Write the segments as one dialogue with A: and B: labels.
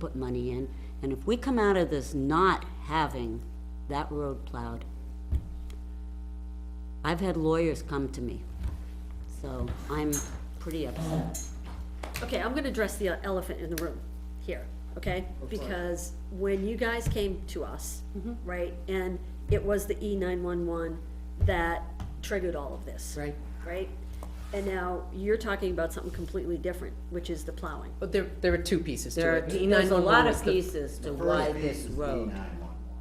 A: put money in. And if we come out of this not having that road plowed, I've had lawyers come to me, so I'm pretty upset.
B: Okay, I'm gonna address the elephant in the room here, okay? Because when you guys came to us, right, and it was the E nine-one-one that triggered all of this.
A: Right.
B: Right? And now you're talking about something completely different, which is the plowing.
C: But there, there are two pieces to
A: There are,
C: it.
A: there's a lot
C: 911 is
A: of
C: the-
A: pieces to why this
D: E
A: road,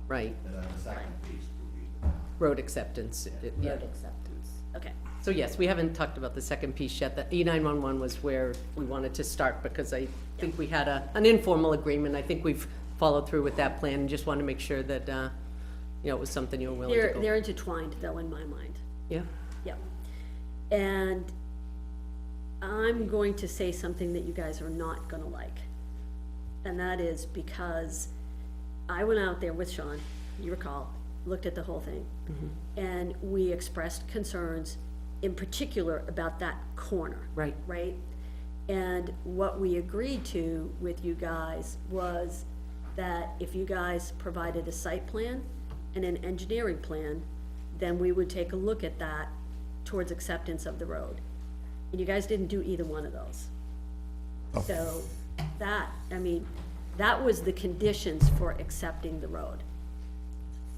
C: Right,
D: And then the second piece would be the town.
C: road acceptance, it- yeah.
A: road acceptance.
B: Okay,
C: So yes, we haven't talked about the second piece yet, the E nine-one-one was where we wanted to start, because I think we had a, an informal agreement, I think we've followed through with that plan, and just wanted to make sure that, uh, you know, it was something you were willing
B: they're,
C: to
B: they're
C: go.
B: intertwined though in my mind,
C: Yeah,
B: yep. And I'm going to say something that you guys are not gonna like. And that is because I went out there with Sean, you recall, looked at the whole thing. And we expressed concerns in particular about that corner.
C: Right.
B: Right? And what we agreed to with you guys was that if you guys provided a site plan and an engineering plan, then we would take a look at that towards acceptance of the road. And you guys didn't do either one of those.
E: Oh.
B: So that, I mean, that was the conditions for accepting the road.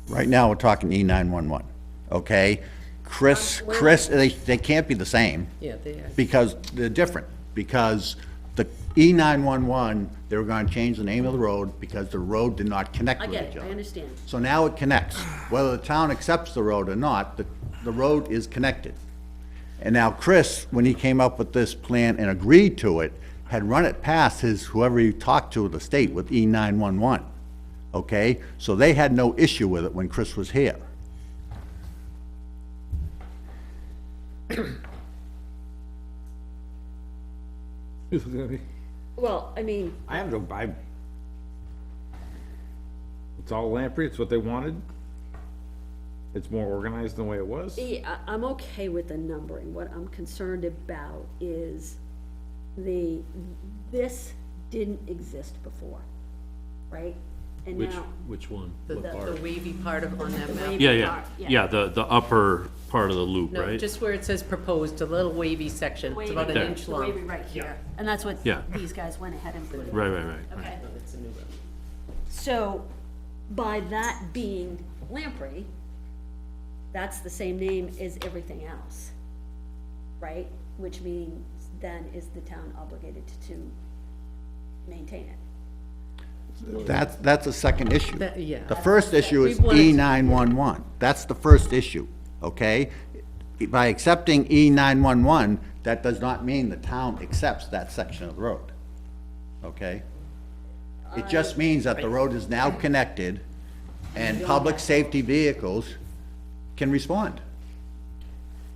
D: Right now, we're talking E nine-one-one, okay? Chris, Chris, they, they can't be the same.
C: yeah, they are.
D: Because they're different, because the E nine-one-one, they were gonna change the name of the road because the road did not connect
B: I
D: with each other.
B: get it, I understand.
D: So now it connects. Whether the town accepts the road or not, the, the road is connected. And now Chris, when he came up with this plan and agreed to it, had run it past his, whoever he talked to at the state with E nine-one-one. Okay? So they had no issue with it when Chris was here.
B: Well, I mean,
F: I have no, I, it's all Lamprey, it's what they wanted. It's more organized than the way it was.
B: yeah, e, I- I'm okay with the numbering. What I'm concerned about is the, this didn't exist before, right? And
E: Which,
B: now,
E: which one?
C: The,
E: What
C: the
E: part?
C: wavy part of, on that map.
E: Yeah,
B: part, yeah.
E: yeah, yeah, the, the upper part of the loop,
C: No,
E: right?
C: just where it says proposed, a little wavy section, it's about an
E: There.
C: inch
B: the way we
C: long.
B: right here, and that's what
E: Yeah.
B: these guys went ahead and put in.
E: Right, right, right, right.
B: Okay.
C: It's a new road.
B: So, by that being Lamprey, that's the same name as everything else, right? Which means then is the town obligated to maintain it?
D: That's, that's the second issue.
C: That- yeah.
D: The first issue is
C: We wanted to-
D: E nine-one-one. That's the first issue, okay? By accepting E nine-one-one, that does not mean the town accepts that section of the road, okay? It just means that the road is now connected and public safety vehicles can respond.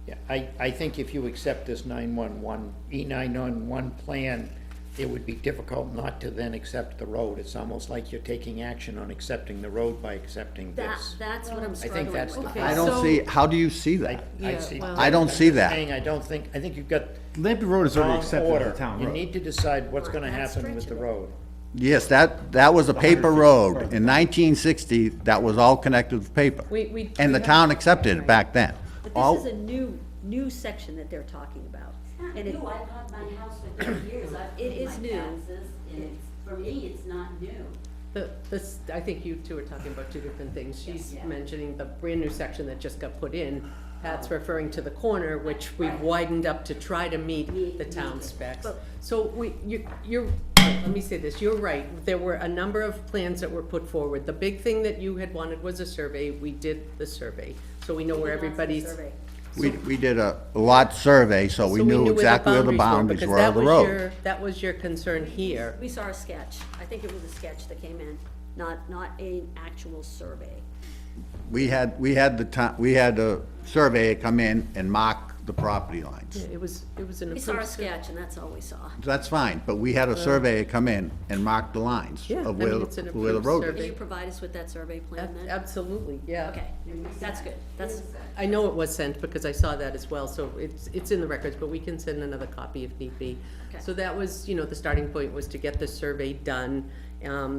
G: Yeah, I, I think if you accept this 911, E911 plan, it would be difficult not to then accept the road. It's almost like you're taking action on accepting the road by accepting
B: That,
G: this.
B: that's what I'm
G: I
B: struggling
G: think
B: with.
G: that's the
C: Okay.
D: I don't
C: So-
D: see, how do you see
G: I,
D: that?
C: Yeah,
G: I see.
C: well-
D: I don't see that.
G: Saying, I don't think, I think you've got
F: Lamprey Road is
G: wrong
F: already accepted as
G: order.
F: a town
G: You
F: road.
G: need to decide what's gonna
B: Right, that's
G: happen with the
B: stretchable.
G: road.
D: Yes, that, that was a paper road. In nineteen sixty, that was all connected with paper.
C: We- we-
D: And the
C: we have-
D: town accepted it back then.
B: But
D: All-
B: this is a new, new section that they're talking about. and it-
A: new, I've had my house for thirty years, I've
B: It
A: paid
B: is
A: my
B: new.
A: taxes, and it's, for me, it's not new.
C: The, this, I think you two are talking about two different things. She's
A: Yeah.
C: mentioning the brand new section that just got put in. Pat's
B: Oh.
C: referring to the corner, which we widened up to try to meet the town specs. So we, you, you're, let me say this, you're right. There were a number of plans that were put forward. The big thing that you had wanted was a survey. We did the survey. So we know where
B: That's the
C: everybody's.
B: survey.
D: We, we did a lot survey, so we
C: so
D: knew exactly where the boundaries
C: because
D: were
C: that
D: of the
C: was
D: road.
C: your- That was your concern here.
B: We saw a sketch. I think it was a sketch that came in, not, not an actual survey.
D: We had, we had the ti, we had a surveyor come in and mark the property lines.
C: It was, it was an
B: We
C: approved.
B: saw a
C: survey.
B: sketch and that's all we saw.
D: That's fine, but we had a surveyor come in and mark the lines
C: Yeah, I
D: of
C: mean,
D: where,
C: it's an
D: where the
C: approved
D: road
C: survey.
B: Can
D: is.
B: you provide us with that survey plan
C: Ab-
B: then?
C: Absolutely, yeah.
B: Okay, that's good. That's,
C: I know it was sent because I saw that as well, so it's, it's in the records, but we can send another copy if need be.
B: Okay.
C: So that was, you know, the starting point was to get the survey done Um,